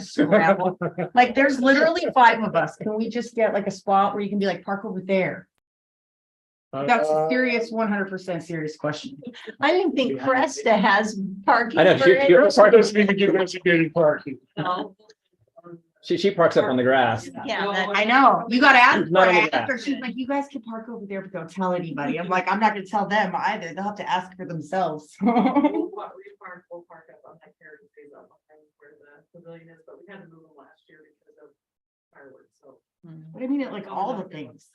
scramble. Like, there's literally five of us. Can we just get like a spot where you can be like, park over there? That's Uh, a serious, one hundred percent serious question. I didn't think Cresta has parking. I know, for she- it. she- Yeah. That's Park doesn't even give us a good parking. She, she parks up on the grass. that- I know, you gotta ask Not her only that. after. She's like, you guys can park over there, but don't tell anybody. I'm like, I'm not gonna tell them either. They'll have to ask for themselves. We'll park, we park, we'll park up on that carriage phase up behind where the pavilion is, but we had to move them last year because of fireworks, so. But I mean, it like all the things.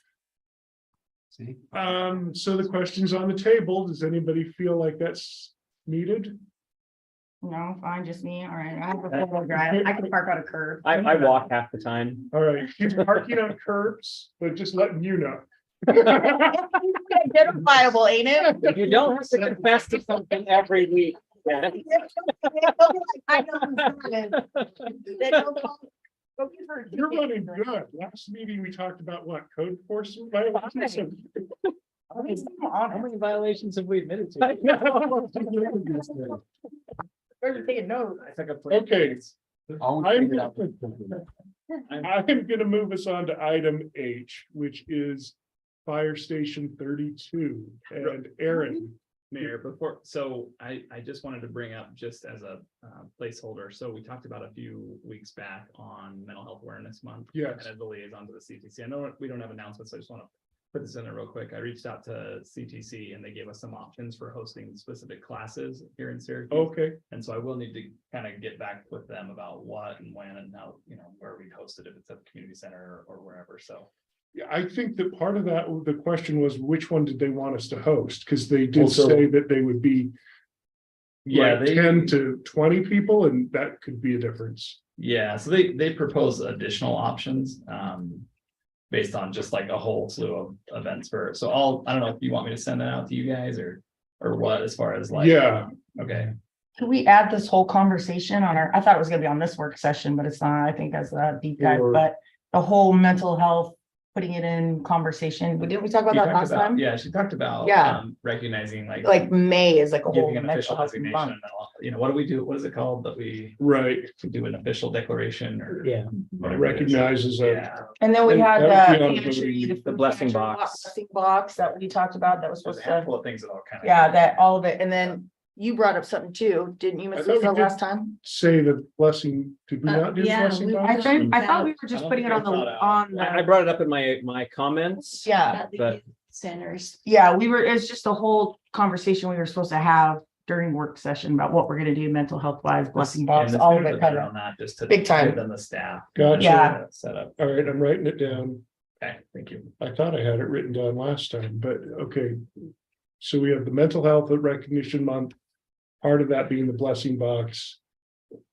See, Um, so the question's on the table. Does anybody feel like that's needed? No, fine, just me. All right, I have a four wheel drive. I can park on a curb. I, I walk half the time. All right, she's parking on curbs, but just letting you know. Identifiable, ain't it? You don't have to confess to something every week. Janet. I know who's doing it. They don't call- go give her a You're ticket. running good. Last meeting, we talked about what code enforcement violations. How many- how many violations have we admitted to? I know. Where's the ticket? No. I took a plate. Okay, I'll I'm- figure it out. I'm gonna move us on to item H, which is fire station thirty-two and Aaron. Mayor, before, so I, I just wanted to bring up just as a uh, placeholder, so we talked about a few weeks back on Mental Health Awareness Month. Yes. And as the liaison to the CTC, I know we don't have announcements, so I just want to put this in there real quick. I reached out to CTC and they gave us some options for hosting specific classes here in Syracuse. Okay, And so I will need to kind of get back with them about what and when and how, you know, where we host it, if it's at the community center or wherever, so. Yeah, I think that part of that, the question was which one did they want us to host? Because they did Also- say that they would be Yeah, like they- ten to twenty people, and that could be a difference. Yeah, so they, they propose additional options, um. Based on just like a whole slew of events for, so I'll, I don't know if you want me to send that out to you guys or, or what, as far as like. Yeah. Okay, Can we add this whole conversation on our, I thought it was gonna be on this work session, but it's not, I think that's a deep dive, Sure. but the whole mental health, putting it in conversation, didn't we talk about She that talked last about- time? yeah, she talked about. Yeah. um, Recognizing like. Like May is like a whole Giving an official mental health designation, month. and all- you know, what do we do, what is it called that we Right, we do an official declaration or? Yeah. whatever it is. recognizes that. Yeah, And then we And had that would be the on the- pantry, the the food blessing pantry, box. blessing Box that we talked about that was there's supposed a to, handful of things that all kind of. yeah, that, all of it. And then you brought up something too, didn't you, I Miss thought we Lisa, did- last time? Say the blessing, did we Uh, not do the yeah, blessing? we- box? I think, I thought we were I just don't putting it think I on the, thought out. on I I the, brought it up in my, my comments. yeah. About the But- youth Centers. Yeah, we were, it's just a whole conversation we were supposed to have during work session about what we're gonna do mental health wise, blessing box, And all of there's it a covered. better on that, just to Big time. give them the staff. Gotcha. Yeah. Set up. All right, I'm writing it down. Okay, thank you. I thought I had it written down last time, but okay. So we have the mental health recognition month, part of that being the blessing box.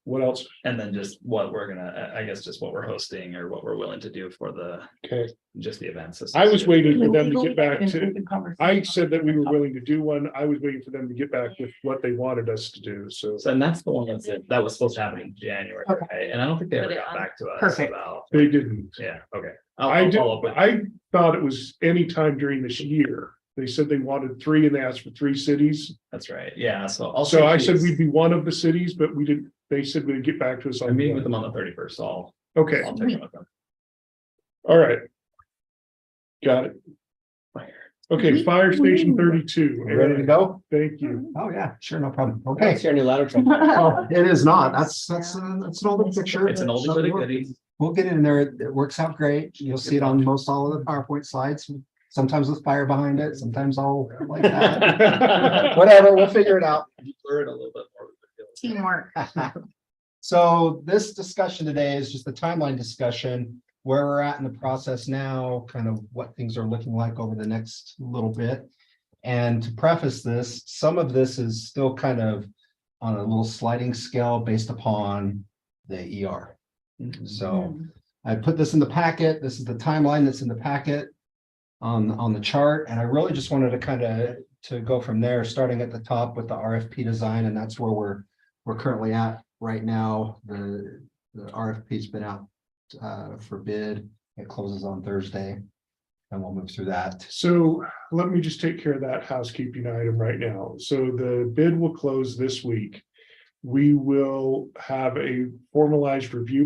What else? And then just what we're gonna, I I guess, just what we're hosting or what we're willing to do for the, Okay, just the events. I was waiting for them to Legal get back and to, open conversation. I said that we were willing to do one. I was waiting for them to get back with what they wanted us to do, so. So and that's the one that's, that was supposed to happen in January, Okay. right? And I don't think they ever Put it got on. back to us Perfect. about, They didn't. yeah, okay. I'll- I I'll did, follow up with- I thought it was any time during this year. They said they wanted three and they asked for three cities. That's right, yeah, so I'll. So shoot I said these. we'd be one of the cities, but we didn't, they said we'd get back to us I'm on. meeting with them on the thirty-first, so I'll, Okay, I'll check in with them. all right. Got it. Okay, fire station thirty-two. Ready to go? Thank you. Oh, yeah, sure, no problem. That's Okay. your new ladder truck. Oh, it is not. That's, that's, uh, that's an older picture. It's an oldie but a goodie. We'll get in there. It works out great. You'll see it on most all of the PowerPoint slides, sometimes with fire behind it, sometimes all like that. Whatever, we'll figure it out. Blur it a little bit more. Teamwork. So this discussion today is just the timeline discussion, where we're at in the process now, kind of what things are looking like over the next little bit. And to preface this, some of this is still kind of on a little sliding scale based upon the ER. Mm-hmm. So I put this in the packet. This is the timeline that's in the packet on, on the chart. And I really just wanted to kind of, to go from there, starting at the top with the RFP design, and that's where we're, we're currently at right now. The, the RFP's been out uh, for bid. It closes on Thursday. And we'll move through that. So let me just take care of that housekeeping item right now. So the bid will close this week. we will have a formalized review